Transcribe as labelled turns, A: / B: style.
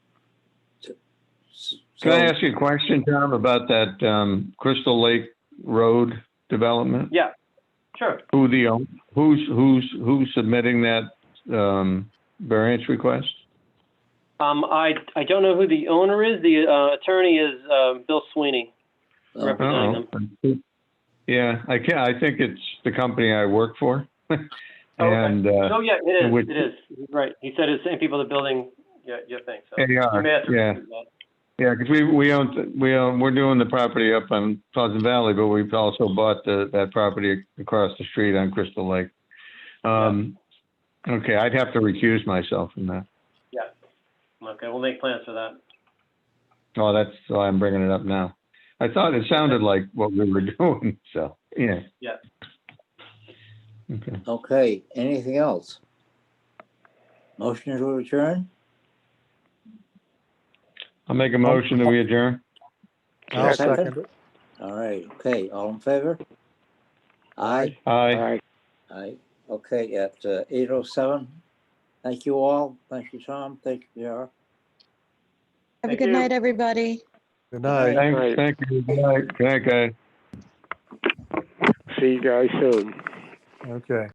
A: Can I ask you a question, Tom, about that um, Crystal Lake Road development?
B: Yeah, sure.
A: Who the, own- who's, who's, who's submitting that um, variance request?
B: Um, I, I don't know who the owner is. The uh, attorney is uh, Bill Sweeney
C: Oh.
B: representing them.
A: Oh. Yeah, I can, I think it's the company I work for. And uh,
B: Oh, yeah, it
A: which-
B: is, it is. He's Right. He said it's the same people that building your, your thing, so.
A: they
B: you
A: are,
B: may have to
A: yeah.
B: repeat that.
A: Yeah, because we, we own, we own, we're doing the property up on Pleasant Valley, but we've also bought the, that property across the street on Crystal Lake. Um, okay, I'd have to recuse myself from that.
B: Okay, we'll make plans for that.
A: Oh, that's why I'm bringing it up now. I thought it sounded like what we were doing, so, yeah.
B: Yeah.
A: Okay,
C: Okay, anything else? Motion to adjourn?
A: I'll make a motion that we adjourn.
D: I'll second it.
C: All right, okay, all in favor? Aye,
A: Aye,
C: aye, okay, at eight oh seven. Thank you all, thank you, Tom, thank you, J.R.
E: Have a
B: Thank
E: good
B: you.
E: night, everybody.
D: Good night.
A: thanks, thank you, good night, good night, guys.
F: See you guys soon.
D: Okay.